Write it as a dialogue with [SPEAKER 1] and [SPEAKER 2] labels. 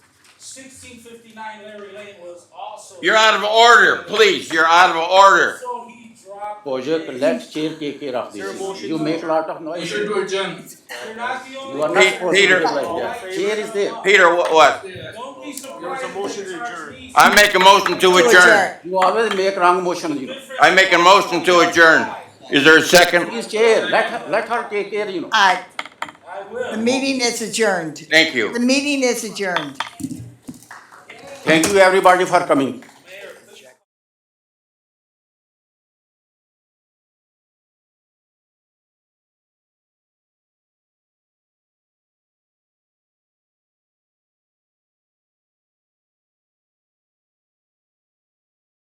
[SPEAKER 1] sixteen fifty-nine Larry Lane was also.
[SPEAKER 2] You're out of order, please. You're out of order.
[SPEAKER 1] So he dropped.
[SPEAKER 3] Pojok,
[SPEAKER 1] his-
[SPEAKER 3] let chair take care of
[SPEAKER 4] Sir,
[SPEAKER 3] this.
[SPEAKER 4] motion
[SPEAKER 3] You
[SPEAKER 4] to-
[SPEAKER 3] make lot of noise.
[SPEAKER 4] Motion to adjourn.
[SPEAKER 1] You're not the only.
[SPEAKER 3] You are
[SPEAKER 1] one.
[SPEAKER 3] not supposed to
[SPEAKER 2] Peter.
[SPEAKER 3] be like that. Chair is there.
[SPEAKER 2] Peter, what? what?
[SPEAKER 1] Don't be surprised.
[SPEAKER 4] There was a motion to
[SPEAKER 1] if Charles
[SPEAKER 4] adjourn.
[SPEAKER 1] Reese-
[SPEAKER 2] I make a motion to adjourn.
[SPEAKER 3] You always make wrong motion, you know.
[SPEAKER 2] I make a motion to adjourn. Is there a second?
[SPEAKER 3] Please chair, let her, let her take care, you know.
[SPEAKER 5] Aye.
[SPEAKER 1] I will.
[SPEAKER 5] The meeting is adjourned.
[SPEAKER 2] Thank you.
[SPEAKER 5] The meeting is adjourned.
[SPEAKER 3] Thank you everybody for coming.